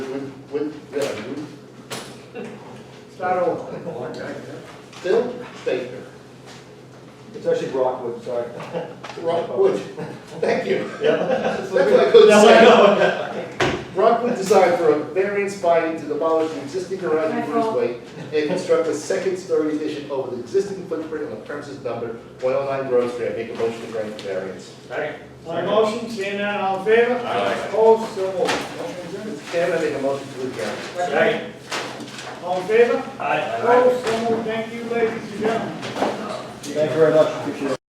with them, Start over. Phil Baker, It's actually Rockwood, sorry. Rockwood, thank you. That's That's what I couldn't say. Rockwood designed for a variance finding to demolish the existing garage and breezeway and construct a second story addition over the existing footprint on the premises number one oh nine Grove Street. I make a motion to grant the variance. On the motion, seeing none, all in favor? Aye. Opposed, so moved. Motion adjourned. Mr. Chairman, I make a motion to adjourn. Second. All in favor? Aye. Opposed, so moved. Thank you, ladies and gentlemen. Thank you very much, appreciate it.